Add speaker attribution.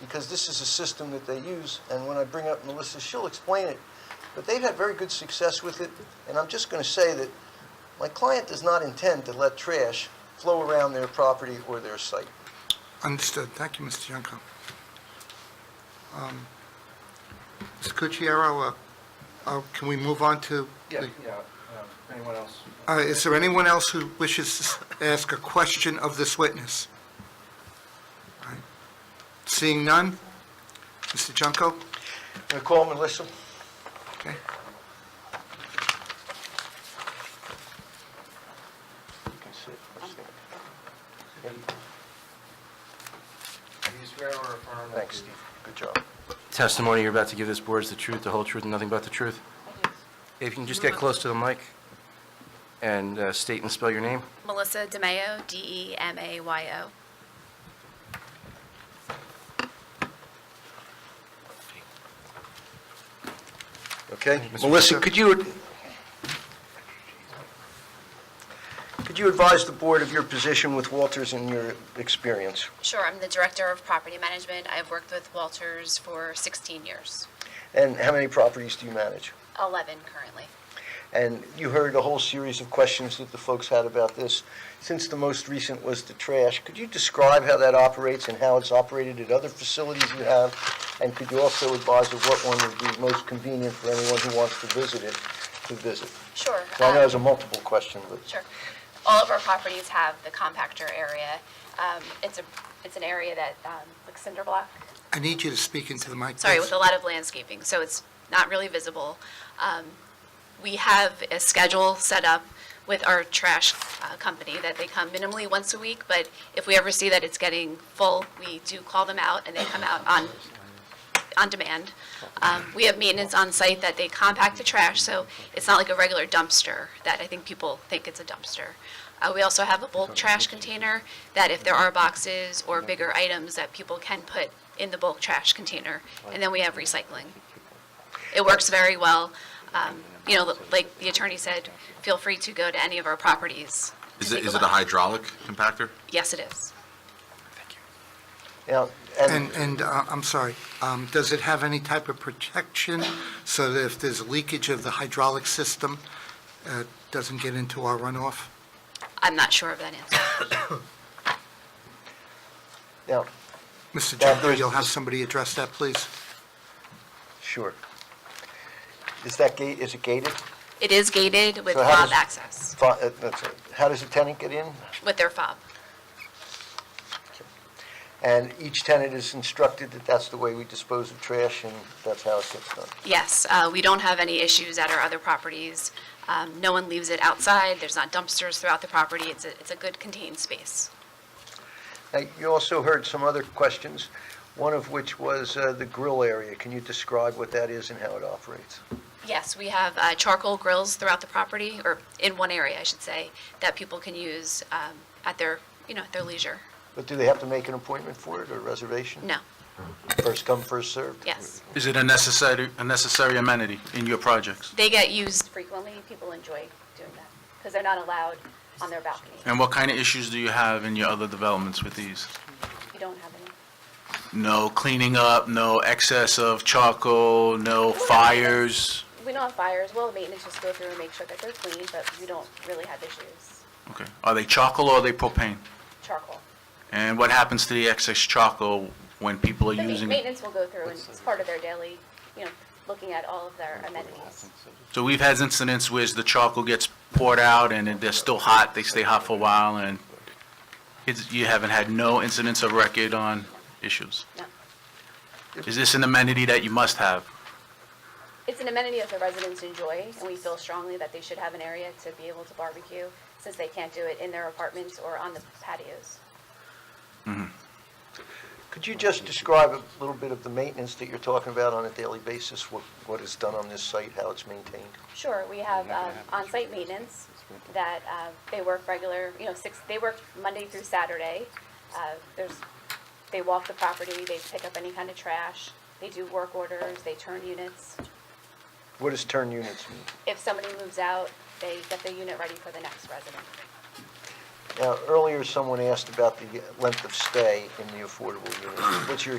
Speaker 1: because this is a system that they use, and when I bring up Melissa, she'll explain it. But they've had very good success with it, and I'm just going to say that my client does not intend to let trash flow around their property or their site.
Speaker 2: Understood. Thank you, Mr. Junko. Um, Mr. Cucchiaro, uh, uh, can we move on to?
Speaker 3: Yeah,
Speaker 2: the-
Speaker 3: yeah, um, anyone else?
Speaker 2: Uh, Is there anyone else who wishes to s- ask a question of this witness? All right. Seeing none? Mr. Junko?
Speaker 1: Can I call Melissa?
Speaker 2: Okay.
Speaker 3: Do you swear or affirm? that
Speaker 1: Thanks,
Speaker 3: you-
Speaker 1: Steve. Good job.
Speaker 4: testimony you're about to give this board is the truth, the whole truth, and nothing but the truth? If you can just get close to the mic and uh, state and spell your name.
Speaker 5: Melissa DeMayo, E D-E-M-A-Y-O.
Speaker 1: Okay,
Speaker 4: Mr.
Speaker 1: Melissa,
Speaker 4: Fisher.
Speaker 1: could you, could you advise the board of your position with Walters and your experience?
Speaker 5: Sure, I'm the Director of Property Management. I've worked with Walters for 16 years,
Speaker 1: And how many properties do you manage?
Speaker 5: 11 currently.
Speaker 1: And you heard a whole series of questions that the folks had about this. Since the most recent was the trash, could you describe how that operates and how it's operated at other facilities you have? And could you also advise of what one would be most convenient for anyone who wants to visit it, to visit?
Speaker 5: Sure.
Speaker 1: So I know
Speaker 5: um,
Speaker 1: it's a multiple question, but...
Speaker 5: Sure. All of our properties have the compactor area. Um, It's a, it's an area that, um, like cinder block,
Speaker 2: I need you to speak into the mic.
Speaker 5: sorry,
Speaker 2: please.
Speaker 5: with a lot of landscaping, so it's not really visible. Um, We have a schedule set up with our trash uh, company that they come minimally once a week, but if we ever see that it's getting full, we do call them out, and they come out on, on demand. Um, We have maintenance on site that they compact the trash, so it's not like a regular dumpster that I think people think it's a dumpster. Uh, We also have a bulk trash container that if there are boxes or bigger items that people can put in the bulk trash container, and then we have recycling. It works very well. Um, You know, like the attorney said, feel free to go to any of our properties. to
Speaker 6: Is it,
Speaker 5: take
Speaker 6: is it a
Speaker 5: look.
Speaker 6: hydraulic compactor?
Speaker 5: Yes, it is.
Speaker 1: Now,
Speaker 2: And, and uh, I'm sorry, um, does it have any type of protection so that if there's leakage of the hydraulic system, uh, it doesn't get into our runoff?
Speaker 5: I'm not sure of that answer.
Speaker 1: now,
Speaker 2: Mr.
Speaker 1: Well,
Speaker 2: Junko,
Speaker 1: there's-
Speaker 2: you'll have somebody address that, please?
Speaker 1: Sure. Is that gate, is it gated?
Speaker 5: It is gated with
Speaker 1: So how
Speaker 5: fob
Speaker 1: does-
Speaker 5: access,
Speaker 1: Fi- uh, that's it. How does a tenant get in?
Speaker 5: with their fob.
Speaker 1: And each tenant is instructed that that's the way we dispose of trash, and that's how it gets done.
Speaker 5: Yes, uh, we don't have any issues at our other properties. Um, No one leaves it outside. There's not dumpsters throughout the property. It's a, it's a good contained space.
Speaker 1: Now, you also heard some other questions, one of which was uh, the grill area. Can you describe what that is and how it operates?
Speaker 5: Yes, we have uh, charcoal grills throughout the property, or in one area, I should say, that people can use um, at their, you know, at their leisure.
Speaker 1: But do they have to make an appointment for it or reservation?
Speaker 5: No,
Speaker 1: First come, first served?
Speaker 5: yes.
Speaker 7: Is it a necessary, a necessary amenity in your projects?
Speaker 5: They get used frequently. People enjoy doing that because they're not allowed on their balcony.
Speaker 7: And what kind of issues do you have in your other developments with these?
Speaker 5: You don't have any.
Speaker 7: No cleaning up, no excess of charcoal, no fires?
Speaker 5: We don't have fires. Well, maintenance just go through and make sure that they're clean, but we don't really have issues.
Speaker 7: Okay. Are they charcoal or are they propane?
Speaker 5: Charcoal.
Speaker 7: And what happens to the excess charcoal when people are
Speaker 5: The ma-
Speaker 7: using? it?
Speaker 5: maintenance will go through and it's part of their daily, you know, looking at all of their amenities.
Speaker 7: So we've had incidents where the charcoal gets poured out and then they're still hot, they stay hot for a while, and it's- you haven't had no incidents of record on issues?
Speaker 5: No.
Speaker 7: Is this an amenity that you must have?
Speaker 5: It's an amenity that the residents enjoy, and we feel strongly that they should have an area to be able to barbecue, since they can't do it in their apartments or on the patios.
Speaker 1: Could you just describe a little bit of the maintenance that you're talking about on a daily basis? What What is done on this site, how it's maintained?
Speaker 5: Sure, we have um, on-site maintenance that uh, they work regular, you know, six, they work Monday through Saturday. Uh, There's, they walk the property, they pick up any kind of trash, they do work orders, they turn units.
Speaker 1: What does turn units mean?
Speaker 5: If somebody moves out, they get the unit ready for the next resident.
Speaker 1: Now, earlier, someone asked about the length of stay in the affordable unit. What's your